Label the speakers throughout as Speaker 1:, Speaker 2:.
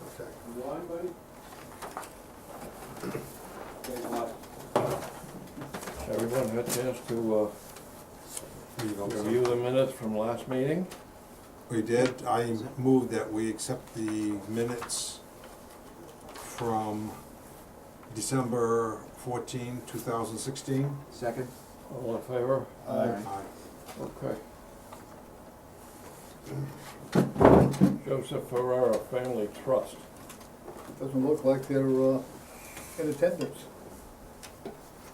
Speaker 1: Why, buddy? Guys, what?
Speaker 2: Everyone had a chance to uh, review the minutes from last meeting?
Speaker 3: We did, I move that we accept the minutes from December 14, 2016.
Speaker 4: Second?
Speaker 2: All in favor?
Speaker 4: Aye.
Speaker 2: Okay. Joseph Ferrara Family Trust.
Speaker 5: Doesn't look like they're uh, in attendance.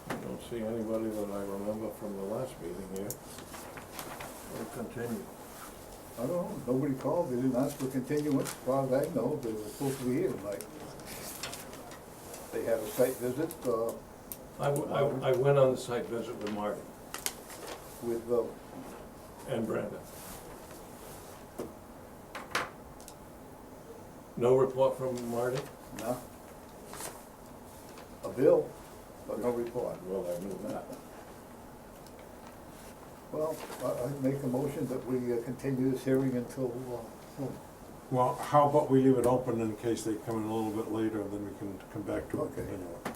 Speaker 2: I don't see anybody that I remember from the last meeting here. We'll continue.
Speaker 5: I don't know, nobody called, they didn't ask for continuance, as far as I know, they were supposed to be here tonight. They had a site visit uh,
Speaker 2: I, w- I- I went on the site visit with Marty
Speaker 5: with, uh,
Speaker 2: and Brenda. No report from Marty?
Speaker 5: nah, a bill, but no report.
Speaker 2: Well, I knew that.
Speaker 5: Well, I- I'd make a motion that we uh, continue this hearing until, uh, hmm,
Speaker 3: Well, how about we leave it open in case they come in a little bit later, and then we can come back to it.
Speaker 5: Okay.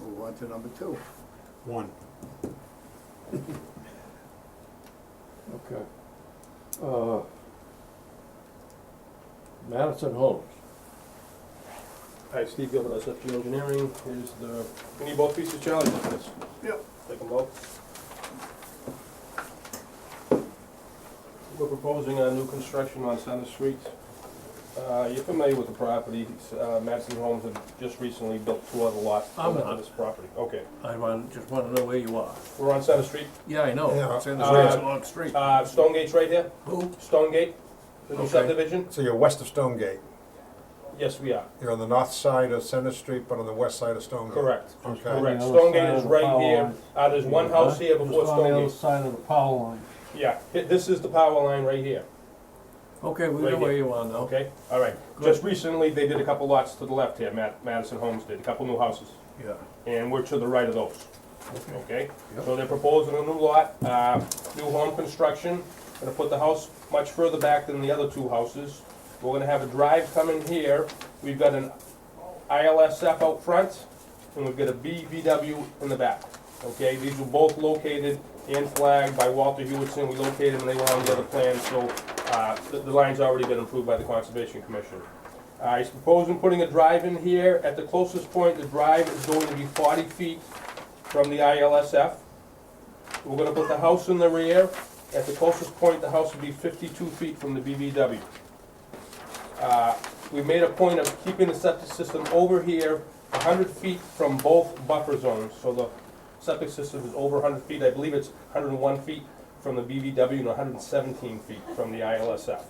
Speaker 5: move on to number two.
Speaker 3: One,
Speaker 2: Okay. Uh, Madison Homes.
Speaker 1: Hi, Steve Gilbert, SFG Engineering, here's the, we need both pieces, Charlie, like this?
Speaker 5: Yep.
Speaker 1: Take them both. We're proposing a new construction on Center Street. Uh, you're familiar with the property, It's, uh, Madison Homes have just recently built two other lots
Speaker 2: I'm
Speaker 1: on
Speaker 2: not.
Speaker 1: this property. Okay,
Speaker 2: I want, just wanna know where you are.
Speaker 1: we're on Center Street,
Speaker 2: Yeah, I know.
Speaker 3: Yeah.
Speaker 2: It's in
Speaker 1: Uh,
Speaker 2: the long street.
Speaker 1: uh, Stone Gate's right here,
Speaker 2: Who?
Speaker 1: Stone Gate, the new
Speaker 2: Okay.
Speaker 1: subdivision,
Speaker 3: so you're west of Stonegate.
Speaker 1: yes, we are,
Speaker 3: you're on the north side of Center Street, but on the west side of Stonegate.
Speaker 1: correct.
Speaker 3: Okay,
Speaker 1: Correct,
Speaker 6: the other side
Speaker 1: Stone Gate
Speaker 6: of
Speaker 1: is
Speaker 6: the
Speaker 1: right
Speaker 6: power
Speaker 1: here,
Speaker 6: line.
Speaker 1: uh, there's one house here
Speaker 6: Just
Speaker 1: before
Speaker 6: on the
Speaker 1: Stone
Speaker 6: other
Speaker 1: Gate.
Speaker 6: side of the power line.
Speaker 1: Yeah, hi- this is the power line right here,
Speaker 2: Okay, we
Speaker 1: Right
Speaker 2: know
Speaker 1: here.
Speaker 2: where you are now.
Speaker 1: okay? All right, just recently, they did a couple lots to the left here, Ma- Madison Homes did, a couple new houses,
Speaker 2: Yeah.
Speaker 1: and we're to the right of those,
Speaker 2: Okay.
Speaker 1: okay?
Speaker 2: Yep.
Speaker 1: So they're proposing a new lot, uh, new home construction, gonna put the house much further back than the other two houses. We're gonna have a drive come in here, we've got an ILSF out front, and we've got a BVW in the back. Okay, these were both located and flagged by Walter Hewitson, we located them, they were on the other plan, so, uh, the, the line's already been approved by the Conservation Commission. Uh, he's proposing putting a drive in here, at the closest point, the drive is going to be forty feet from the ILSF. We're gonna put the house in the rear, at the closest point, the house will be fifty-two feet from the BVW. Uh, we made a point of keeping the septic system over here, hundred feet from both buffer zones, so the septic system is over hundred feet, I believe it's hundred and one feet from the BVW and hundred and seventeen feet from the ILSF.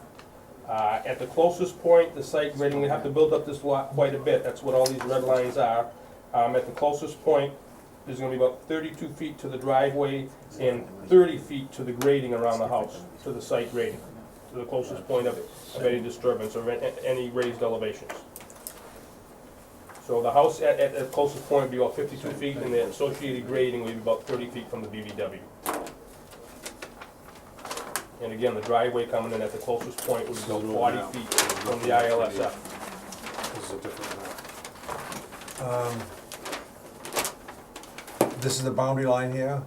Speaker 1: Uh, at the closest point, the site grading, we have to build up this lot quite a bit, that's what all these red lines are. Um, at the closest point, there's gonna be about thirty-two feet to the driveway and thirty feet to the grading around the house, to the site grading, to the closest point of it of any disturbance or a- any raised elevations. So the house at, at, at closest point would be about fifty-two feet, and the associated grading would be about thirty feet from the BBW. And again, the driveway coming in at the closest point would be about forty feet from the ILSF.
Speaker 3: this is a different map. Um, This is the boundary line here?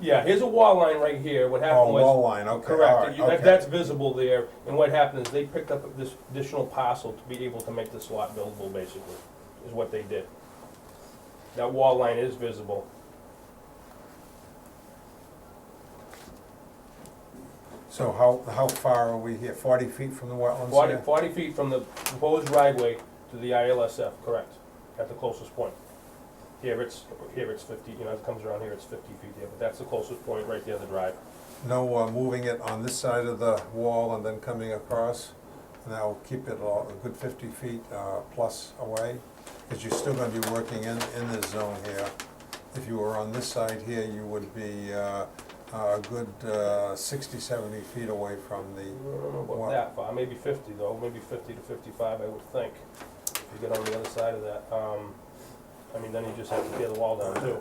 Speaker 1: Yeah, here's a wall line right here,
Speaker 3: Oh,
Speaker 1: what happened was.
Speaker 3: wall line, okay, all
Speaker 1: Correct,
Speaker 3: right,
Speaker 1: You- that-
Speaker 3: okay.
Speaker 1: that's visible there, and what happened is they picked up this additional parcel to be able to make this lot buildable, basically, is what they did. That wall line is visible.
Speaker 3: So how, how far are we here, forty feet from the wetlands
Speaker 1: Forty
Speaker 3: here?
Speaker 1: 40 feet from the proposed driveway to the ILSF, correct, at the closest point. Here it's, here it's fifty, you know, it comes around here, it's fifty feet there, but that's the closest point, right there, the drive.
Speaker 3: No, uh, moving it on this side of the wall and then coming across, and that'll keep it all a good fifty feet, uh, plus away, because you're still gonna be working in, in this zone here. If you were on this side here, you would be, uh, a good, uh, sixty, seventy feet away from the,
Speaker 1: I don't know
Speaker 3: Wow.
Speaker 1: about that far, maybe fifty though, maybe fifty to fifty-five, I would think, if you get on the other side of that. Um, I mean, then you just have to tear the wall down too.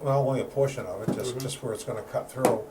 Speaker 3: well, only a portion of it, just,
Speaker 1: Mhm.
Speaker 3: just where it's gonna cut through.